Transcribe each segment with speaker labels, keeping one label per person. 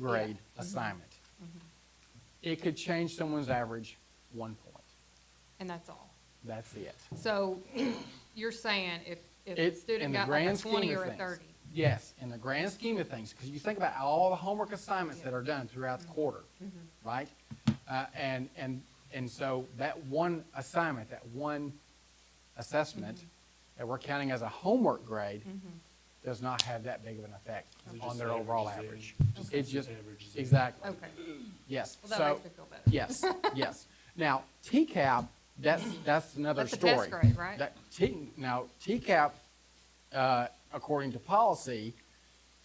Speaker 1: grade
Speaker 2: Mm-hmm.
Speaker 1: assignment. It could change someone's average one point.
Speaker 2: And that's all.
Speaker 1: That's it.
Speaker 2: So you're saying if, if a
Speaker 1: It- in
Speaker 2: student
Speaker 1: the
Speaker 2: got like a
Speaker 1: grand scheme
Speaker 2: twenty
Speaker 1: of
Speaker 2: or a
Speaker 1: things.
Speaker 2: thirty?
Speaker 1: Yes, in the grand scheme of things, because you think about all the homework assignments that are done throughout the
Speaker 2: Mm-hmm.
Speaker 1: quarter, right? Uh, and, and, and so that one assignment, that one assessment
Speaker 2: Mm-hmm.
Speaker 1: that we're counting as a homework grade does not have that big of an effect
Speaker 3: It
Speaker 1: on
Speaker 3: just
Speaker 1: their overall
Speaker 3: averages
Speaker 1: average.
Speaker 3: in. Just
Speaker 1: It's just,
Speaker 3: averages in.
Speaker 1: exactly,
Speaker 2: Okay,
Speaker 1: yes.
Speaker 2: Oh. well, that
Speaker 1: So-
Speaker 2: makes me feel
Speaker 1: Yes,
Speaker 2: better.
Speaker 1: yes. Now, TCAP, that's, that's another
Speaker 2: That's a test
Speaker 1: story.
Speaker 2: grade, right?
Speaker 1: That T, now, TCAP, uh, according to policy,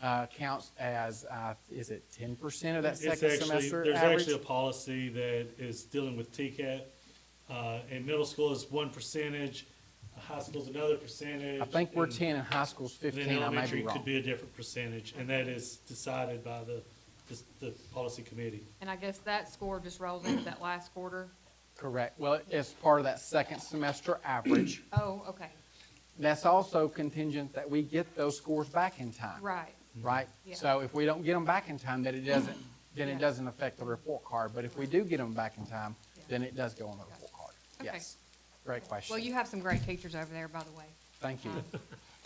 Speaker 1: uh, counts as, uh, is it ten percent of that
Speaker 3: It's
Speaker 1: second
Speaker 3: actually-
Speaker 1: semester
Speaker 3: There's
Speaker 1: average?
Speaker 3: actually a policy that is dealing with TCAP. Uh, in middle school is one percentage, high school's another percentage.
Speaker 1: I think we're
Speaker 3: and
Speaker 1: ten and high school's
Speaker 3: Then
Speaker 1: fifteen, I may
Speaker 3: elementary
Speaker 1: be
Speaker 3: could
Speaker 1: wrong.
Speaker 3: be a different percentage, and that is decided by the, the, the policy committee.
Speaker 2: And I guess that score just rolls into that last quarter?
Speaker 1: Correct. Well, it's part of that second semester average.
Speaker 2: Oh, okay,
Speaker 1: That's also contingent that we get those scores back in time.
Speaker 2: right,
Speaker 1: right?
Speaker 2: Yeah.
Speaker 1: So if we don't get them back in time, then it doesn't, then
Speaker 2: Yeah.
Speaker 1: it doesn't affect the report card. But if we do get them back in time, then it does go on the report card.
Speaker 2: Okay.
Speaker 1: Yes. Great question.
Speaker 2: well, you have some great teachers over there, by the way.
Speaker 1: Thank you.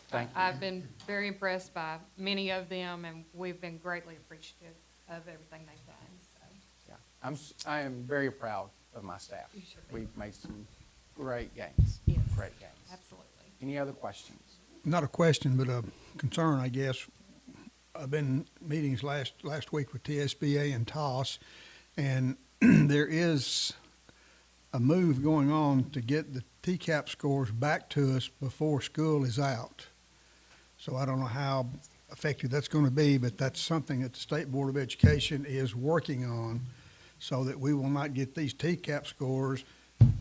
Speaker 1: Thank you.
Speaker 2: I've been very impressed by many of them, and we've been greatly appreciative of everything they've done, so.
Speaker 1: Yeah. I'm, s- I am very proud of my staff.
Speaker 2: You should be.
Speaker 1: We've made some great gains.
Speaker 2: Yes.
Speaker 1: Great gains.
Speaker 2: Absolutely.
Speaker 1: Any other questions?
Speaker 4: not a question, but a concern, I guess. I've been in meetings last, last week with TSBA and TOS, and there is a move going on to get the TCAP scores back to us before school is out. So I don't know how effective that's going to be, but that's something that the State Board of Education is working on so that we will not get these TCAP scores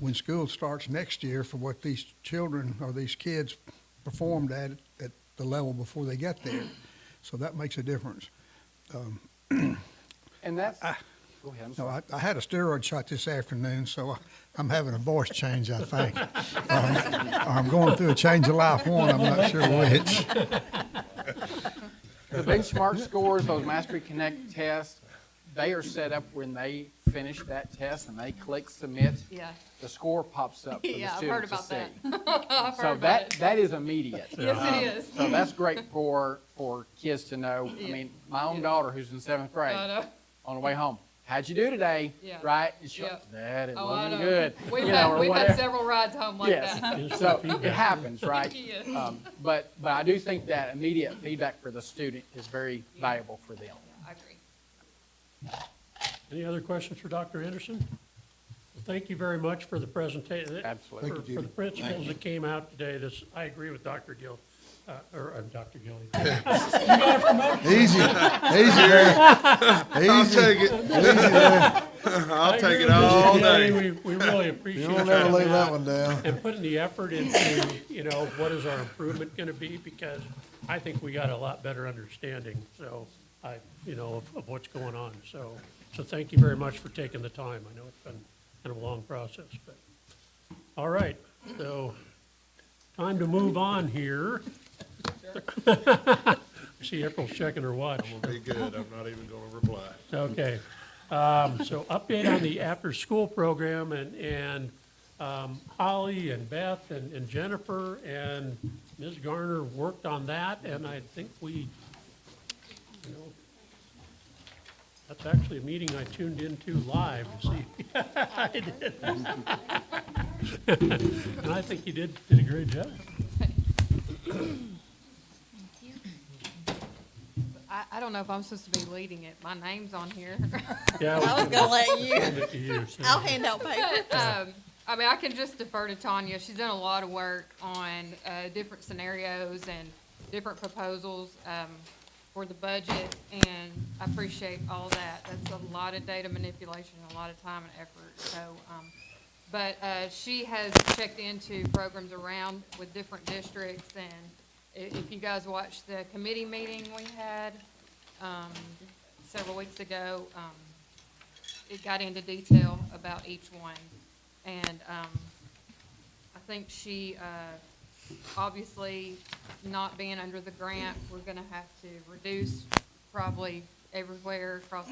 Speaker 4: when school starts next year for what these children or these kids performed at, at the level before they got there. So that makes a difference.
Speaker 1: And that's, go ahead, I'm
Speaker 4: No,
Speaker 1: sorry.
Speaker 4: I, I had a steroid shot this afternoon, so I- I'm having a voice change, I think. Um, I'm going through a change of life one, I'm not sure which.
Speaker 1: The benchmark scores, those Mastery Connect tests, they are set up when they finish that test and they click submit.
Speaker 2: Yeah,
Speaker 1: The score pops up for the
Speaker 2: Yeah, I've heard
Speaker 1: student to
Speaker 2: about
Speaker 1: see.
Speaker 2: that. I've
Speaker 1: So
Speaker 2: heard about
Speaker 1: that,
Speaker 2: it.
Speaker 1: that is immediate. Um,
Speaker 2: Yes, it
Speaker 1: So
Speaker 2: is.
Speaker 1: that's great for, for kids to know. I
Speaker 2: Yeah.
Speaker 1: mean, my own daughter who's in seventh grade,
Speaker 2: I know.
Speaker 1: on the way home, how'd you do today?
Speaker 2: Yeah.
Speaker 1: Right? And she'll,
Speaker 2: Yeah.
Speaker 1: That, it
Speaker 2: Oh, I
Speaker 1: wasn't
Speaker 2: know.
Speaker 1: good.
Speaker 2: We've
Speaker 1: you know,
Speaker 2: had,
Speaker 1: or
Speaker 2: we've had
Speaker 1: whatever.
Speaker 2: several rides home like that.
Speaker 1: Yes, so it happens, right?
Speaker 2: Yes.
Speaker 1: Um, But, but I do think that immediate feedback for the student is very valuable for them.
Speaker 2: I agree.
Speaker 5: Any other questions for Dr. Anderson? Well, Thank you very much for the presentation.
Speaker 1: Absolutely.
Speaker 4: Thank you,
Speaker 5: For the
Speaker 4: Judy.
Speaker 5: principles that came out today, this, I agree with Dr. Gill, uh, or, uh, Dr. Gilly.
Speaker 4: Easy, easy there. Easy.
Speaker 6: Take it. I'll take it all day.
Speaker 5: We, we really appreciate
Speaker 4: You
Speaker 5: you
Speaker 4: don't ever
Speaker 5: coming
Speaker 4: lay that
Speaker 5: out
Speaker 4: one down.
Speaker 5: and putting the effort into, you know, what is our improvement gonna be? Because I think we got a lot better understanding, so, I, you know, of, of what's going on, so. So thank you very much for taking the time. I know it's been kind of a long process, but. All right, so time to move on here. I See April's checking her watch.
Speaker 6: Be good. I'm not even gonna reply.
Speaker 5: Okay. Um, So update on the after-school program and, and um, Holly and Beth and and Jennifer and Ms. Garner worked on that and I think we, you know, that's actually a meeting I tuned into live to see. I did. And I think you did, did a great job.
Speaker 2: I, I don't know if I'm supposed to be leading it. My name's on here.
Speaker 5: Yeah,
Speaker 7: I was gonna let you.
Speaker 5: we'll get to you soon.
Speaker 7: I'll hand out paper.
Speaker 2: um, I mean, I can just defer to Tanya. She's done a lot of work on uh, different scenarios and different proposals um, for the budget, and I appreciate all that. That's a lot of data manipulation, a lot of time and effort. So, um, but uh, she has checked into programs around with different districts, and i- if you guys watched the committee meeting we had um, several weeks ago, um, it got into detail about each one. And um, I think she, uh, obviously, not being under the grant, we're gonna have to reduce probably everywhere across